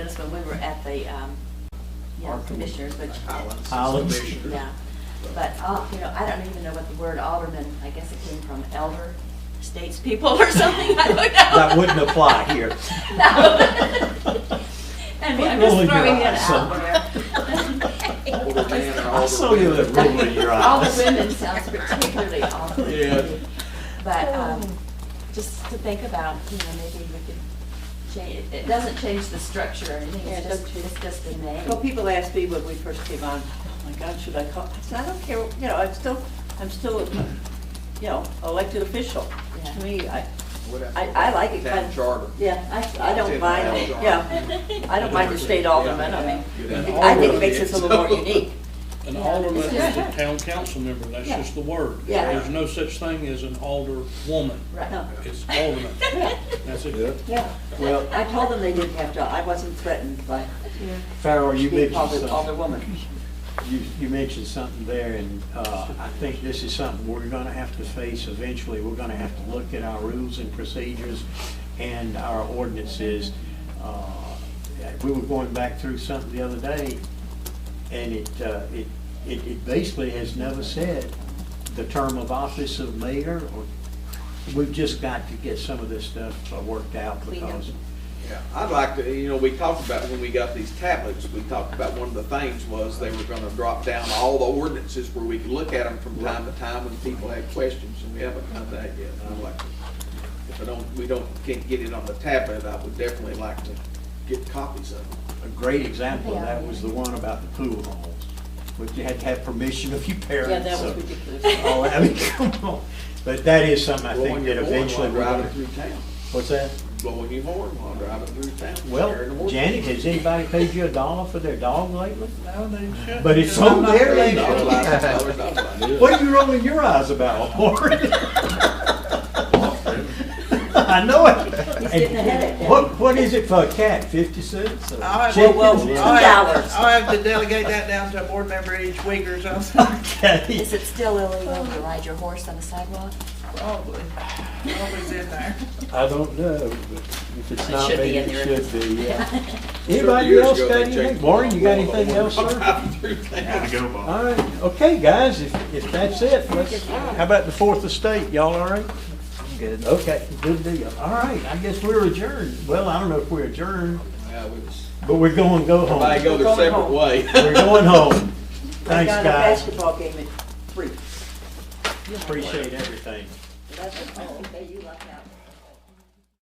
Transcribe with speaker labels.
Speaker 1: when we were at the, um, you know, commissioners, which.
Speaker 2: Highlands.
Speaker 1: Yeah, but, uh, you know, I don't even know what the word alderman, I guess it came from elder statespeople or something, I don't know.
Speaker 2: That wouldn't apply here.
Speaker 1: No. I mean, I'm
Speaker 2: Rolling
Speaker 1: just
Speaker 2: your
Speaker 1: throwing it
Speaker 2: eyes, so-
Speaker 1: out
Speaker 3: Older man
Speaker 1: there.
Speaker 3: and
Speaker 2: I saw you
Speaker 3: older
Speaker 2: that
Speaker 3: women.
Speaker 2: roll in your eyes.
Speaker 1: All the women sounds particularly awful.
Speaker 3: Yeah.
Speaker 1: But, um, just to think about, you know, maybe we could change, it doesn't change the structure or anything,
Speaker 4: Yeah, it
Speaker 1: it's just,
Speaker 4: doesn't
Speaker 1: it's just a
Speaker 4: Well,
Speaker 1: name.
Speaker 4: people asked me when we first came on, oh my God, should I call? I said, I don't care, you know, I'm still, I'm still, a, you know, elected official.
Speaker 1: Yeah.
Speaker 4: To me, I,
Speaker 3: Whatever.
Speaker 4: I, I like it kind
Speaker 3: That
Speaker 4: of.
Speaker 3: charter.
Speaker 4: Yeah, I, I don't
Speaker 3: It's
Speaker 4: mind,
Speaker 3: in
Speaker 4: it.
Speaker 3: the bylaws.
Speaker 4: yeah. I don't mind the state alderman, I mean,
Speaker 3: Yeah.
Speaker 4: I think it makes us a little more unique.
Speaker 5: An
Speaker 1: Yeah.
Speaker 5: alderman is
Speaker 4: Yeah.
Speaker 5: a town council member, that's
Speaker 4: Yeah.
Speaker 5: just the word.
Speaker 4: Yeah.
Speaker 5: There's no such thing as an alderwoman,
Speaker 4: No,
Speaker 1: Right.
Speaker 5: it's alderman,
Speaker 4: yeah,
Speaker 5: that's it.
Speaker 4: yeah.
Speaker 2: Well-
Speaker 4: I told them they didn't have to, I wasn't threatened by
Speaker 2: Farrell, you
Speaker 4: being
Speaker 2: mentioned
Speaker 4: called
Speaker 2: something.
Speaker 4: an alderwoman.
Speaker 2: You, you mentioned something there, and uh, I think this is something we're going to have to face eventually. We're going to have to look at our rules and procedures and our ordinances. Uh, We were going back through something the other day, and it, uh, it, it it basically has never said the term of office of mayor, or, we've just got to get some of this stuff uh, worked out
Speaker 4: Clean up.
Speaker 2: because
Speaker 3: Yeah, I'd like to, you know, we talked about when we got these tablets, we talked about one of the things was they were gonna drop down all the ordinances where we could look at them from time to time when people had questions, and we haven't done that yet. And I'd like, to- if I don't, we don't, can't get it on the tablet, I would definitely like to get copies of them.
Speaker 2: A great example of that was the one about the pool halls, which you had to have permission of your parents.
Speaker 4: Yeah, that was
Speaker 2: so-
Speaker 4: ridiculous.
Speaker 2: Oh, I mean, come on. But that is something I
Speaker 3: Blowing
Speaker 2: think
Speaker 3: your
Speaker 2: that
Speaker 3: horn
Speaker 2: eventually
Speaker 3: while
Speaker 2: we're
Speaker 3: Driving
Speaker 2: gonna,
Speaker 3: through town,
Speaker 2: what's that?
Speaker 3: blowing your horn while driving through town. scaring the
Speaker 2: Well,
Speaker 3: horse.
Speaker 2: Janet, has anybody paid you a dollar for their dog lately?
Speaker 5: No, they shouldn't.
Speaker 2: But it's
Speaker 5: I'm
Speaker 2: on
Speaker 5: not
Speaker 2: there,
Speaker 5: really-
Speaker 3: Dollar license, dollar license.
Speaker 2: What are you rolling your eyes about, Lori? I know it.
Speaker 4: He's getting a headache.
Speaker 2: What, what is it for a cat, fifty cents? or-
Speaker 6: I'll have,
Speaker 2: Chicken?
Speaker 4: well,
Speaker 2: Yeah.
Speaker 6: I'll have-
Speaker 4: dollars.
Speaker 6: I'll have to delegate that down to a board member each week or something,
Speaker 2: Okay.
Speaker 1: Is it still illegal to ride your horse on the sidewalk?
Speaker 6: probably. Always in there.
Speaker 2: I don't know, but if it's
Speaker 1: It
Speaker 2: not
Speaker 1: should be
Speaker 2: made,
Speaker 1: in there.
Speaker 2: it should be, yeah.
Speaker 3: Thirty
Speaker 2: Anybody
Speaker 3: years
Speaker 2: else
Speaker 3: ago,
Speaker 2: got
Speaker 3: they
Speaker 2: anything?
Speaker 3: changed
Speaker 2: Warren, you got
Speaker 3: the law.
Speaker 2: anything else, sir?
Speaker 3: Driving through town.
Speaker 2: All right, okay, guys, if, if that's it, let's, how about the Fourth Estate, y'all all right? Good. Okay, good deal. All right, I guess we're adjourned. Well, I don't know if we're adjourned,
Speaker 3: Yeah, we was-
Speaker 2: but we're going, go
Speaker 3: Everybody
Speaker 2: home.
Speaker 3: go their separate way.
Speaker 2: We're going home.
Speaker 4: I
Speaker 2: Thanks,
Speaker 4: got a
Speaker 2: guys.
Speaker 4: basketball game at three.
Speaker 2: Appreciate everything.
Speaker 4: That's- oh, okay, you lucked out.